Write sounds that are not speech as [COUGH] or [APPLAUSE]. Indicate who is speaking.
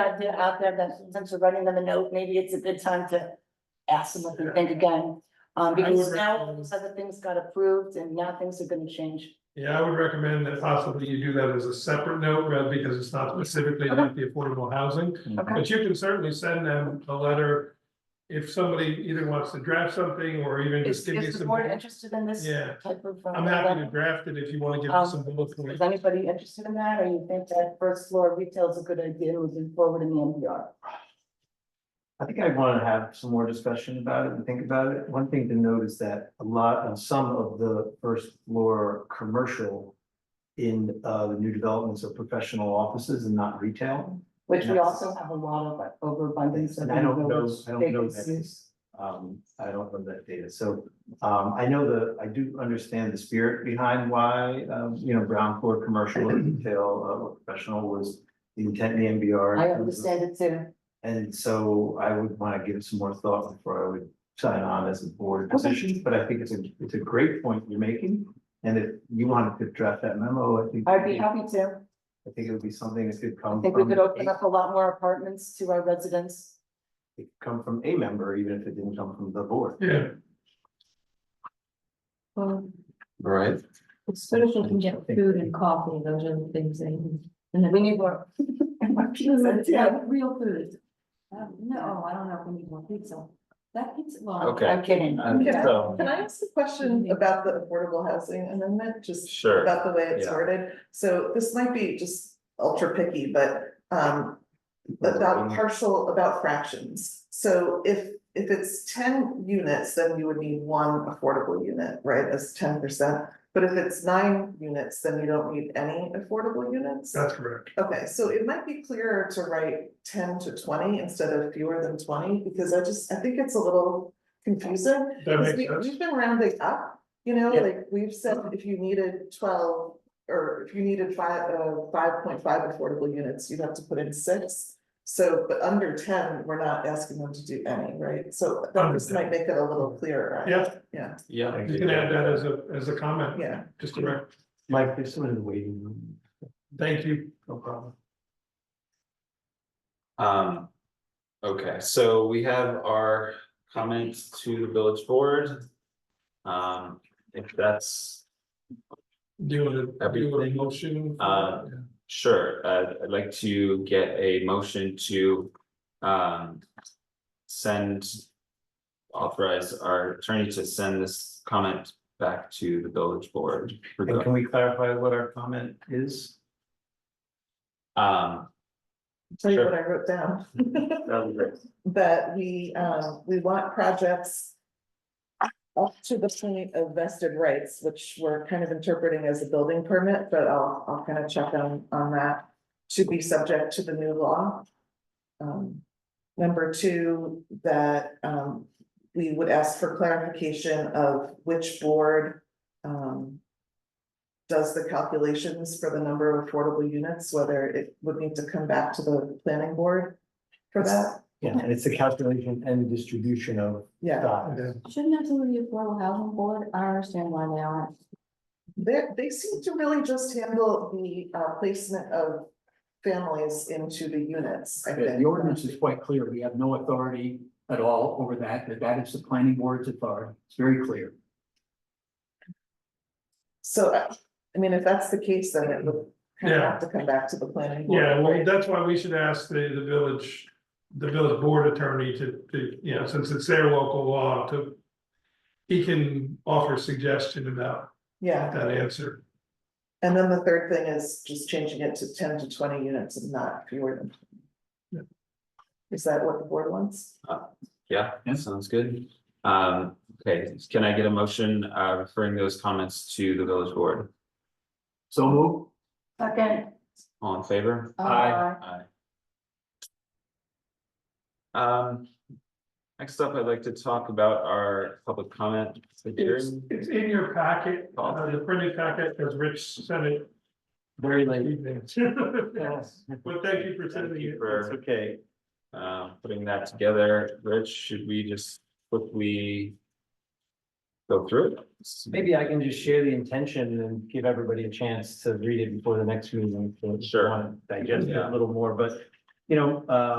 Speaker 1: idea out there that since we're running them a note, maybe it's a good time to ask them what they think again. Um,
Speaker 2: I would
Speaker 1: because now all
Speaker 2: recommend-
Speaker 1: these other things got approved and now things are gonna change.
Speaker 2: Yeah, I would recommend that possibly you do that as a separate note, rather because it's not specifically about the affordable housing.
Speaker 1: Okay.
Speaker 2: But you can certainly send them a letter. If somebody either wants to draft something or even just
Speaker 1: Is,
Speaker 2: give you
Speaker 1: is the
Speaker 2: some.
Speaker 1: board interested in this
Speaker 2: Yeah.
Speaker 1: type of? um,
Speaker 2: I'm happy to draft it if you want to give
Speaker 1: Um,
Speaker 2: us some bullet
Speaker 1: Is
Speaker 2: points.
Speaker 1: anybody interested in that, or you think that first floor retail is a good idea moving forward in the NPR?
Speaker 3: I think I wanna have some more discussion about it and think about it. One thing to note is that a lot of some of the first floor commercial. In uh the new developments of professional offices and not retail.
Speaker 1: Which we
Speaker 3: Yes.
Speaker 1: also have a lot of overabundance of.
Speaker 3: And I don't know,
Speaker 1: those
Speaker 3: I don't know that.
Speaker 1: vacancies.
Speaker 3: Um, I don't know that data, so um I know the, I do understand the spirit behind why, um, you know, ground floor commercial and retail uh or professional was. the Intent in the MBR.
Speaker 1: I understand it too.
Speaker 3: And so I would want to give some more thought before I would sign on as a board position, but I think it's a, it's a great point you're making. And if you wanted to draft that memo, I think.
Speaker 1: I'd be happy to.
Speaker 3: I think it would be something that could come.
Speaker 1: I think we
Speaker 3: from
Speaker 1: could
Speaker 3: a-
Speaker 1: open up a lot more apartments to our residents.
Speaker 3: it could Come from a member, even if it didn't come from the board.
Speaker 2: Yeah,
Speaker 4: Right,
Speaker 5: It's social can get
Speaker 3: Thank
Speaker 5: food and coffee, those are the things they need. And then
Speaker 1: We need
Speaker 5: [LAUGHS]
Speaker 1: more. more pizza,
Speaker 5: Pizza,
Speaker 1: yeah.
Speaker 5: yeah, real food. Um, no, I don't know if we need more pizza. That pizza, well.
Speaker 4: Okay.
Speaker 1: I'm kidding.
Speaker 3: Um,
Speaker 6: Okay.
Speaker 3: so-
Speaker 6: Can I ask a question about the affordable housing amendment, just
Speaker 4: sure.
Speaker 6: about the way it's
Speaker 4: Yeah.
Speaker 6: worded? So this might be just ultra picky, but um about partial, about fractions. So if if it's ten units, then you would need one affordable unit, right, as ten percent? But if it's nine units, then you don't need any affordable units?
Speaker 2: that's correct.
Speaker 6: Okay, so it might be clearer to write ten to twenty instead of fewer than twenty, because I just, I think it's a little confusing.
Speaker 2: That
Speaker 6: Because
Speaker 2: makes
Speaker 6: we,
Speaker 2: sense.
Speaker 6: we've been rounding up, you know,
Speaker 3: Yeah.
Speaker 6: like we've said, if you needed twelve, or if you needed five, uh, five point five affordable units, you'd have to put in six. So, but under ten, we're not asking them to do any, right? So that just
Speaker 2: Understand.
Speaker 6: might make it a little clearer. I-
Speaker 2: Yeah.
Speaker 6: Yeah,
Speaker 4: Yeah.
Speaker 2: You can add that as a, as a comment,
Speaker 6: yeah.
Speaker 2: just direct,
Speaker 3: Mike, there's someone in the waiting room.
Speaker 2: thank you, no problem.
Speaker 4: Um, okay, so we have our comments to the village board. Um, if that's,
Speaker 2: Do you want to, do you want a
Speaker 4: Everything.
Speaker 2: motion?
Speaker 4: Uh, sure, uh, I'd like to get a motion to, um. Send. Authorize our attorney to send this comment back to the village board. for
Speaker 3: And
Speaker 4: the-
Speaker 3: can we clarify what our comment is?
Speaker 4: Um,
Speaker 6: Tell you what
Speaker 4: Sure.
Speaker 6: I wrote down.
Speaker 3: That would be great.
Speaker 6: that we, um, we want projects. Up to the point of vested rights, which we're kind of interpreting as a building permit, but I'll, I'll kind of check on, on that. To be subject to the new law. Um, number two, that, um, we would ask for clarification of which board, um. Does the calculations for the number of affordable units, whether it would need to come back to the planning board for that.
Speaker 3: Yeah, and it's the calculation and distribution of
Speaker 6: Yeah,
Speaker 3: size.
Speaker 5: Shouldn't have somebody at the affordable housing board, I don't understand why they aren't.
Speaker 6: they, they seem to really just handle the uh, placement of families into the units, I
Speaker 7: The
Speaker 6: think.
Speaker 7: the ordinance is quite clear. We have no authority at all over that, that that is the planning board's authority. It's very clear.
Speaker 6: So, I I mean, if that's the case, then it would kind of
Speaker 2: Yeah.
Speaker 6: have to come back to the planning board.
Speaker 2: Yeah, well,
Speaker 6: right?
Speaker 2: that's why we should ask the, the village, the village board attorney to, to, you know, since it's their local law to. He can offer suggestion about
Speaker 6: Yeah,
Speaker 2: that answer.
Speaker 6: and then the third thing is just changing it to ten to twenty units and not fewer than.
Speaker 2: Yeah.
Speaker 6: Is that what the board wants?
Speaker 4: yeah,
Speaker 7: Yeah.
Speaker 4: sounds good. Um, okay, can I get a motion, uh, referring those comments to the village board?
Speaker 7: So move.
Speaker 1: Second.
Speaker 4: All in favor?
Speaker 7: Aye.
Speaker 4: Aye. Um, next up, I'd like to talk about our public comment.
Speaker 2: It's,
Speaker 4: hearing.
Speaker 2: it's in your packet, uh, the printed packet, as Rich sent it.
Speaker 3: Very late.
Speaker 2: [LAUGHS] But
Speaker 3: Yes.
Speaker 2: thank you for sending
Speaker 4: Thank you
Speaker 2: it.
Speaker 3: It's
Speaker 4: for,
Speaker 3: okay.
Speaker 4: um, putting that together. Rich, should we just quickly go through it?
Speaker 3: Maybe I can just share the intention and give everybody a chance to read it before the next meeting. if they
Speaker 4: Sure.
Speaker 3: want to Digest it
Speaker 4: Yeah.
Speaker 3: a little more, but you know, uh,